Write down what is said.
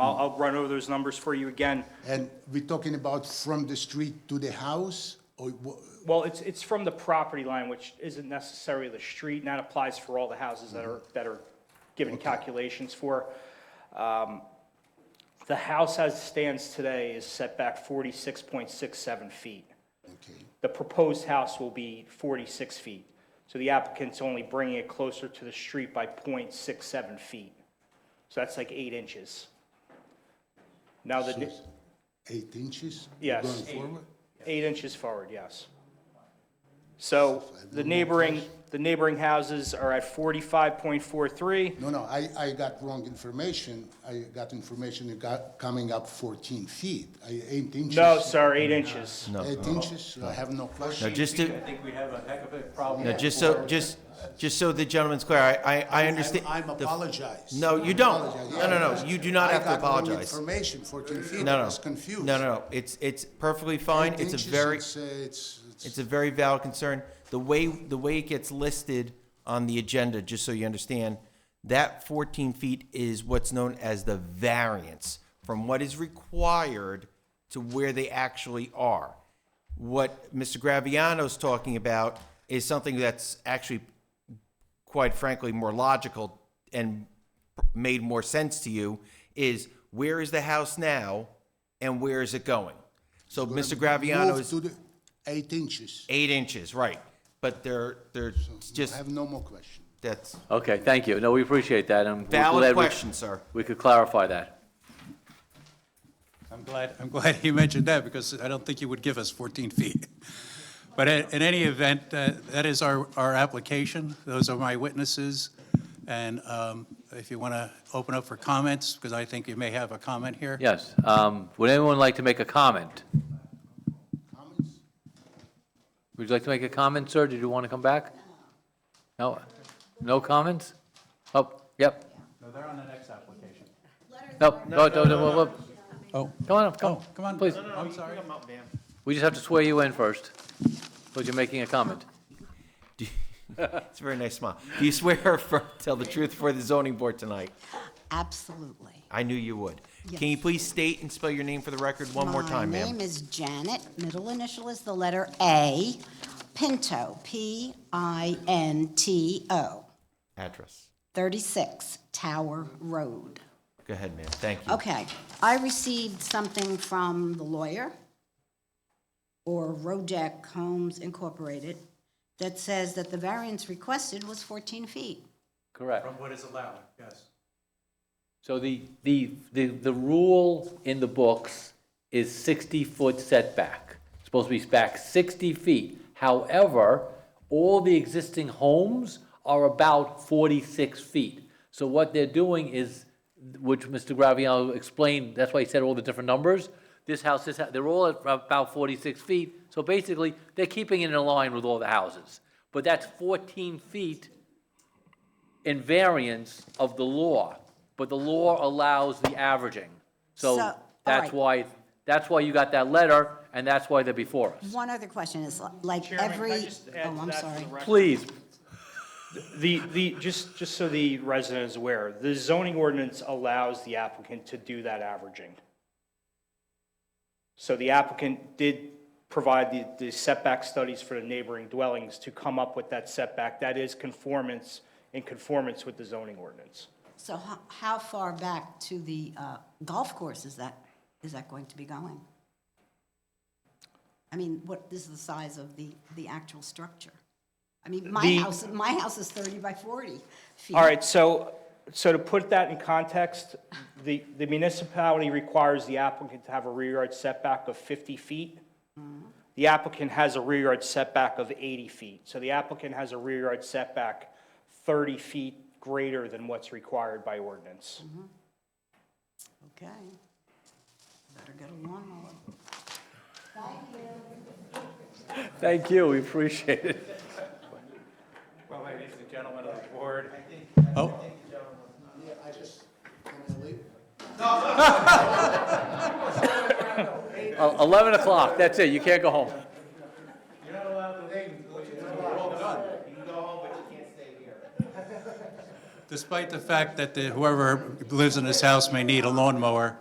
I'll, I'll run over those numbers for you again. And we're talking about from the street to the house, or wha- Well, it's, it's from the property line, which isn't necessarily the street, and that applies for all the houses that are, that are given calculations for. Um, The house as it stands today is set back forty-six point six seven feet. okay, The proposed house will be forty-six feet. So the applicant's only bringing it closer to the street by 0.67 feet. So that's like eight inches. Now the, so eight inches? Yes. Going Eight. forward? Eight inches forward, yes. So the neighboring, the neighboring houses are at forty-five point four three. No, no, I, I got wrong information. I got information that got, coming up fourteen feet, I- eight inches. No, sir, eight inches. Eight inches, I have no question. Now, just I to, think we have a heck of a problem. now, just so, just, just so the gentleman's clear, I, I, I understand. I'm the- apologize. No, you don't. Apologize. No, no, no, you do not I have to got wrong apologize. Information, fourteen feet, No, I no. was confused. No, no, no, it's, it's perfectly fine. Eight It's inches, a very, It's, uh, it's, it's, it's a very valid concern. The way, the way it gets listed on the agenda, just so you understand, that fourteen feet is what's known as the variance from what is required to where they actually are. What Mr. Graviano's talking about is something that's actually quite frankly, more logical and made more sense to you is where is the house now and where is it going? So Mr. Graviano move is to the, eight inches. eight inches, right? But they're, they're I just, have no more question. that's Okay, thank you. No, we appreciate that, and we're valid glad we- question, sir. we could clarify that. I'm glad, I'm glad you mentioned that, because I don't think you would give us 14 feet. But in in any event, uh, that is our, our application. Those are my witnesses. And um, if you want to open up for comments, because I think you may have a comment here. Yes. um, Would anyone like to make a comment? Would you like to make a comment, sir? Did you want to come back? No? No comments? Oh, yep. No, they're on the next application. No, no, no, no, no, Oh, come on up, come. oh, come on. Please, I'm sorry. we just have to swear you in first, because you're making a comment. It's a very nice smile. Do you swear for, tell the truth for the zoning board tonight? Absolutely. I knew you would. Can you please state and spell your name for the record one more time, My ma'am? name is Janet, middle initial is the letter A, Pinto, P-I-N-T-O, Address. 36 Tower Road. Go ahead, ma'am. Thank you. Okay, I received something from the lawyer or Rojack Homes Incorporated that says that the variance requested was 14 feet. Correct. From what is allowed, yes. So the, the, the, the rule in the books is sixty-foot setback. It's Supposed to be back sixty feet. However, all the existing homes are about forty-six feet. So what they're doing is, which Mr. Graviano explained, that's why he said all the different numbers. This house, this, hou- they're all at about forty-six feet. So basically, they're keeping it in line with all the houses. But that's fourteen feet in variance of the law, but the law allows the averaging. So, So all that's right. why, that's why you got that letter, and that's why they're before us. One other question is, like, Chairman, can I every... just add to Oh, that I'm for the sorry. record? Please, The, the, just, just so the resident is aware, the zoning ordinance allows the applicant to do that averaging. So the applicant did provide the, the setback studies for the neighboring dwellings to come up with that setback. That is conformance, in conformance with the zoning ordinance. So ho- how far back to the uh, golf course is that, is that going to be going? I mean, what is the size of the, the actual structure? I mean, my The- house, my house is 30 by 40 feet. All right, so, so to put that in context, the, the municipality requires the applicant to have a rear yard setback of 50 feet. The applicant has a rear yard setback of 80 feet. So the applicant has a rear yard setback 30 feet greater than what's required by ordinance. Okay. Better get a lawnmower. thank you, we appreciate it. Well, ladies and gentlemen of the board. Oh. Uh, 11 o'clock, that's it, you can't go home. Despite the fact that the- whoever lives in this house may need a lawnmower,